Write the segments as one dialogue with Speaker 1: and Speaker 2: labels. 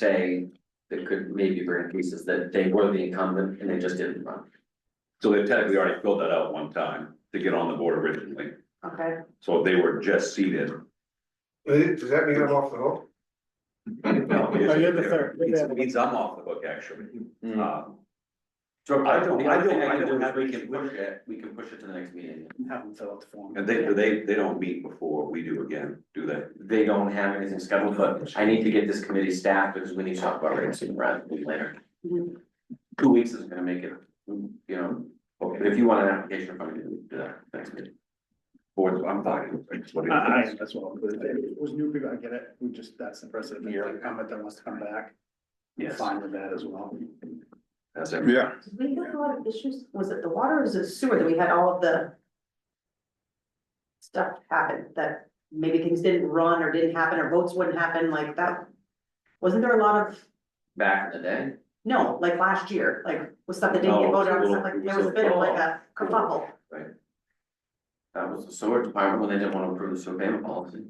Speaker 1: say that could maybe bring pieces that they were the incumbent and they just didn't run.
Speaker 2: So they technically already filled that out one time to get on the board originally,
Speaker 3: Okay,
Speaker 2: so they were just seated.
Speaker 4: Does does that mean I'm off the hook?
Speaker 2: No,
Speaker 5: Oh, you're the third. You're the
Speaker 2: Means
Speaker 5: other
Speaker 2: means I'm off the hook, actually.
Speaker 1: Mm.
Speaker 2: Um,
Speaker 1: So
Speaker 2: I don't-
Speaker 1: the
Speaker 2: I
Speaker 1: other thing
Speaker 2: don't- I
Speaker 1: can
Speaker 2: don't
Speaker 1: do is
Speaker 2: have
Speaker 1: We
Speaker 2: any
Speaker 1: can push it, we can push it to the next meeting.
Speaker 5: Have them fill out the form.
Speaker 2: and they, they, they don't meet before we do again, do they?
Speaker 1: They don't have anything scheduled, but I need to get this committee staffed because we need to talk about rates sooner rather than later.
Speaker 3: Mhm.
Speaker 1: Two weeks is gonna make it, you know, but if you want an application, from me, do that next meeting.
Speaker 2: Board, I'm fine. it's what
Speaker 5: I, I,
Speaker 2: it
Speaker 5: am
Speaker 2: is.
Speaker 5: as well, but if it was new people, I get it, we just, that's impressive, if you're incumbent that wants to come back,
Speaker 2: Yes,
Speaker 5: fine with that as well.
Speaker 2: that's every,
Speaker 3: did we have a lot of issues, was it the water or was it sewer that we had all of the. Stuff happen that maybe things didn't run or didn't happen or votes wouldn't happen like that? Wasn't there a lot of,
Speaker 1: Back in the day,
Speaker 3: no, like last year, like was stuff that didn't
Speaker 1: No,
Speaker 3: get
Speaker 1: it was a
Speaker 3: voted on,
Speaker 1: little-
Speaker 3: stuff like
Speaker 1: it
Speaker 3: there
Speaker 1: was
Speaker 3: was
Speaker 1: a
Speaker 3: a bit of like
Speaker 1: fall.
Speaker 3: a kerfuffle.
Speaker 1: that was the sewer department when they didn't want to approve the sewer payment policy.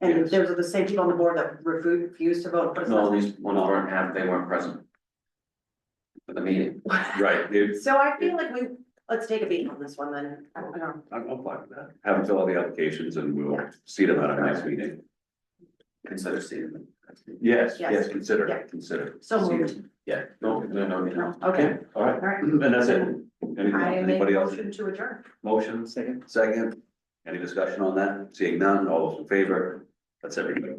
Speaker 3: And
Speaker 2: Yes.
Speaker 3: there was the same people on the board that refused refused to vote. for
Speaker 1: No,
Speaker 3: stuff.
Speaker 1: these ones weren't half, they weren't present. For the meeting,
Speaker 2: right, it's,
Speaker 3: So I feel like we, let's take a beat on this one then, I don't know.
Speaker 2: I'm, I'm fine with that. Have them fill out the applications and we'll see them at our next meeting.
Speaker 1: consider seating them.
Speaker 2: Yes,
Speaker 3: Yes.
Speaker 2: yes, consider,
Speaker 3: Yeah.
Speaker 2: consider.
Speaker 3: So moved.
Speaker 2: Yeah.
Speaker 1: No, no, no, no.
Speaker 3: Okay.
Speaker 2: All right,
Speaker 3: All right,
Speaker 2: and that's it. Anything,
Speaker 3: I make a
Speaker 2: anybody else?
Speaker 3: motion to adjourn.
Speaker 2: Motion,
Speaker 5: Second.
Speaker 2: second, any discussion on that? Seeing none, all those in favor? That's everybody.